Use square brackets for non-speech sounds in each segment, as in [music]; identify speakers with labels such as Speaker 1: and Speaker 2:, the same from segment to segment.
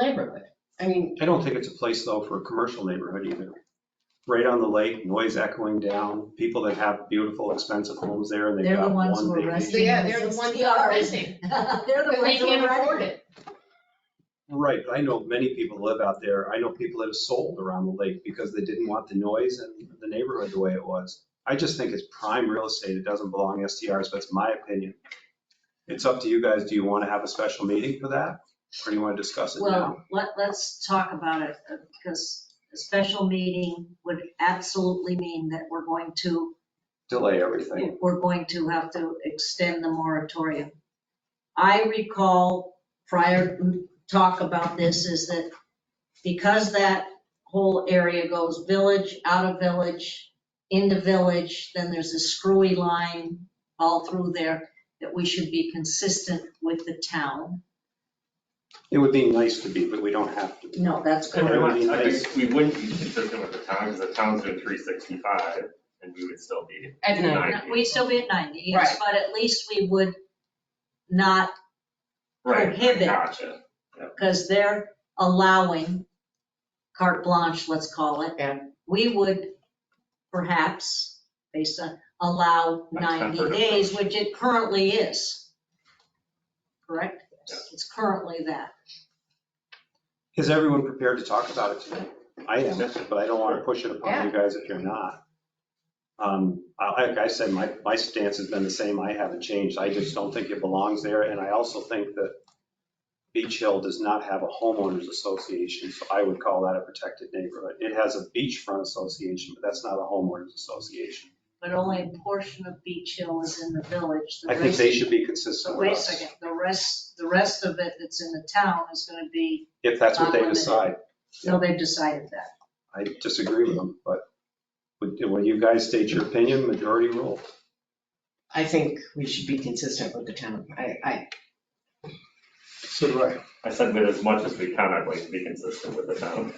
Speaker 1: neighborhood. I mean,
Speaker 2: I don't think it's a place though for a commercial neighborhood either. Right on the lake, noise echoing down, people that have beautiful, expensive homes there and they've
Speaker 3: They're the
Speaker 2: got one
Speaker 3: ones who are
Speaker 2: vacation.
Speaker 3: resting.
Speaker 1: yeah, they're the ones that are missing,
Speaker 3: [laughs] They're the
Speaker 1: because they
Speaker 3: ones who
Speaker 1: can't
Speaker 3: are
Speaker 1: afford
Speaker 3: ready.
Speaker 1: it.
Speaker 2: Right, but I know many people live out there. I know people that have sold around the lake because they didn't want the noise and the neighborhood the way it was. I just think it's prime real estate. It doesn't belong in STRs, but it's my opinion. It's up to you guys. Do you want to have a special meeting for that? Or do you want to discuss it now?
Speaker 3: Well, let, let's talk about it, uh, because a special meeting would absolutely mean that we're going to,
Speaker 2: Delay everything.
Speaker 3: we're going to have to extend the moratorium. I recall prior talk about this is that because that whole area goes village, out of village, into village, then there's a screwy line all through there, that we should be consistent with the town.
Speaker 2: It would be nice to be, but we don't have to. be.
Speaker 3: No, that's
Speaker 2: But it would
Speaker 3: correct.
Speaker 2: be
Speaker 4: I
Speaker 2: nice.
Speaker 4: think we wouldn't be consistent with the town, because the town's doing three sixty-five, and we would still be.
Speaker 1: At
Speaker 4: No.
Speaker 1: night.
Speaker 3: We'd still be at 90, yes, but at least we would not,
Speaker 4: Right,
Speaker 3: Prohibit.
Speaker 4: Gotcha.
Speaker 3: because they're allowing carte blanche, let's call it.
Speaker 1: Yeah.
Speaker 3: We would perhaps, based on, allow
Speaker 4: That's kind of
Speaker 3: 90
Speaker 4: heard of
Speaker 3: days,
Speaker 4: those.
Speaker 3: which it currently is. Correct?
Speaker 4: Yes.
Speaker 3: It's currently that.
Speaker 2: Is everyone prepared to talk about it today? I am, but I don't want to push it upon you guys if you're not. Um, I- Like I said, my, my stance has been the same. I haven't changed. I just don't think it belongs there. And I also think that Beach Hill does not have a homeowners association, so I would call that a protected neighborhood. It has a beachfront association, but that's not a homeowners association.
Speaker 3: But only a portion of Beach Hill is in the village. The
Speaker 2: I think
Speaker 3: rest-
Speaker 2: they should be
Speaker 3: but
Speaker 2: consistent with
Speaker 3: Wait a
Speaker 2: us,
Speaker 3: second, the rest, the rest of it that's in the town is going to be,
Speaker 2: if that's what they
Speaker 3: Unlimited.
Speaker 2: decide.
Speaker 3: no, they've decided that.
Speaker 2: I disagree with them, but would- when you guys state your opinion, majority rule.
Speaker 5: I think we should be consistent with the town. I, I,
Speaker 6: So do I.
Speaker 4: I said that as much as we can, I'd like to be consistent with the town.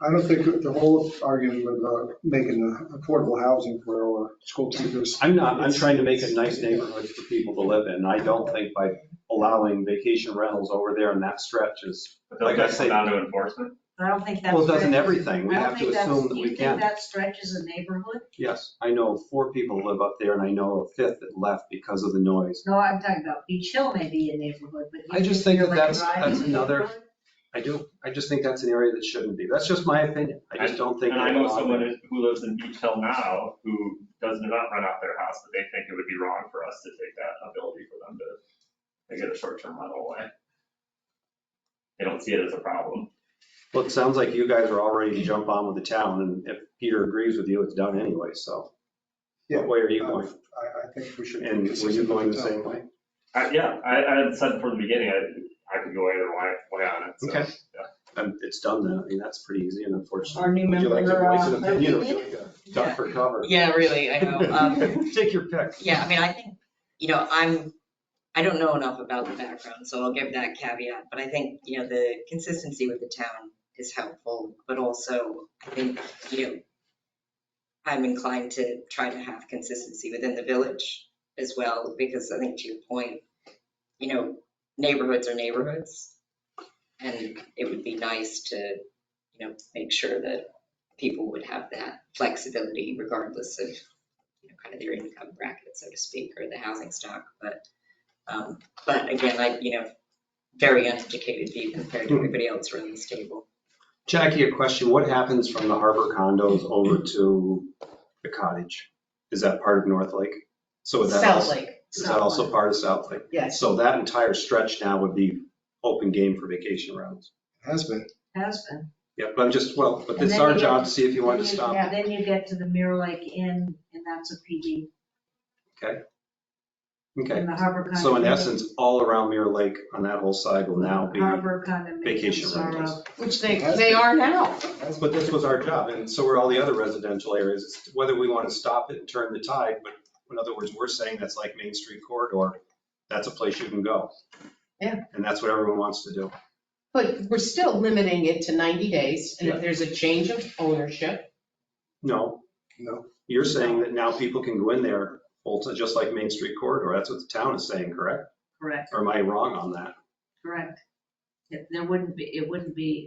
Speaker 6: I don't think the whole argument about making the affordable housing for our school teachers.
Speaker 2: I'm not, I'm trying to make a nice neighborhood for people to live in. I don't think by allowing vacation rentals over there in that stretch is,
Speaker 4: But
Speaker 2: Like I
Speaker 4: doesn't that
Speaker 2: say-
Speaker 4: come down to enforcement?
Speaker 3: I don't think that's.
Speaker 2: well, it doesn't
Speaker 3: fair.
Speaker 2: everything. We
Speaker 3: I don't
Speaker 2: have to
Speaker 3: think that's-
Speaker 2: assume that
Speaker 3: you
Speaker 2: we
Speaker 3: think
Speaker 2: can.
Speaker 3: that stretches a neighborhood?
Speaker 2: Yes, I know four people live up there and I know a fifth that left because of the noise.
Speaker 3: No, I'm talking about Beach Hill may be a neighborhood, but. you
Speaker 2: I just think
Speaker 3: you're
Speaker 2: that
Speaker 3: like
Speaker 2: that's-
Speaker 3: driving
Speaker 2: that's
Speaker 3: a
Speaker 2: another-
Speaker 3: neighborhood?
Speaker 2: I do, I just think that's an area that shouldn't be. That's just my opinion. I just don't think.
Speaker 4: And I know
Speaker 2: that-
Speaker 4: someone who lives in Beach Hill now, who does not rent out their house, but they think it would be wrong for us to take that ability for them to, to get a short-term rental away. They don't see it as a problem.
Speaker 2: Well, it sounds like you guys are all ready to jump on with the town and if Peter agrees with you, it's done anyway, so.
Speaker 6: Yeah.
Speaker 2: What way are you
Speaker 6: I,
Speaker 2: going?
Speaker 6: I think we should. be
Speaker 2: And were you
Speaker 6: consistent
Speaker 2: going
Speaker 6: with
Speaker 2: the
Speaker 6: town.
Speaker 2: same way?
Speaker 4: I, yeah, I, I had said from the beginning, I, I could go either way, way on it, so.
Speaker 2: Okay. Um, it's done then. I mean, that's pretty easy and unfortunate.
Speaker 5: our new
Speaker 2: Would you like to
Speaker 5: member.
Speaker 2: voice an
Speaker 5: uh,
Speaker 2: opinion or would you like to duck for cover?
Speaker 5: Yeah, really, I know.
Speaker 2: [laughs]
Speaker 5: Um,
Speaker 2: Take your pick.
Speaker 5: Yeah, I mean, I think, you know, I'm, I don't know enough about the background, so I'll give that caveat. But I think, you know, the consistency with the town is helpful, but also I think, you know, I'm inclined to try to have consistency within the village as well, because I think to your point, you know, neighborhoods are neighborhoods. And it would be nice to, you know, make sure that people would have that flexibility regardless of you know, kind of their income bracket, so to speak, or the housing stock, but, um, but again, I, you know, very uneducated view compared to everybody else around this table.
Speaker 2: Jackie, a question. What happens from the harbor condos over to the cottage? Is that part of North Lake? So would that
Speaker 5: South
Speaker 2: also,
Speaker 5: Lake,
Speaker 2: is that also part of South Lake?
Speaker 5: yes.
Speaker 2: So that entire stretch now would be open game for vacation rounds.
Speaker 6: Has been.
Speaker 3: Has been.
Speaker 2: Yeah, but I'm just, well, but
Speaker 3: And
Speaker 2: it's
Speaker 3: then
Speaker 2: our
Speaker 3: you-
Speaker 2: job to see if you want to
Speaker 3: Then you-
Speaker 2: stop.
Speaker 3: yeah, Then you get to the Mirror Lake Inn, and that's a PD.
Speaker 2: Okay.
Speaker 3: And the Harbor Condominium.
Speaker 2: So in essence, all around Mirror Lake on that whole side will now be.
Speaker 3: Harbor condominiums
Speaker 2: vacation
Speaker 3: are
Speaker 2: rentals.
Speaker 3: up.
Speaker 5: Which
Speaker 6: they- they are
Speaker 5: now.
Speaker 6: Has been.
Speaker 2: But this was our job, and so were all the other residential areas, It's whether we want to stop it and turn the tide, but in other words, we're saying that's like Main Street corridor, that's a place you can go.
Speaker 7: Yeah.
Speaker 2: And that's what everyone wants to do.
Speaker 7: But we're still limiting it to 90 days, and
Speaker 2: Yeah.
Speaker 7: if there's a change of ownership,
Speaker 2: No,
Speaker 6: No.
Speaker 2: you're saying that now people can go in there, well, it's just like Main Street corridor, that's what the town is saying, correct?
Speaker 3: Correct,
Speaker 2: Or am I wrong on that?
Speaker 3: correct. There wouldn't be, it wouldn't be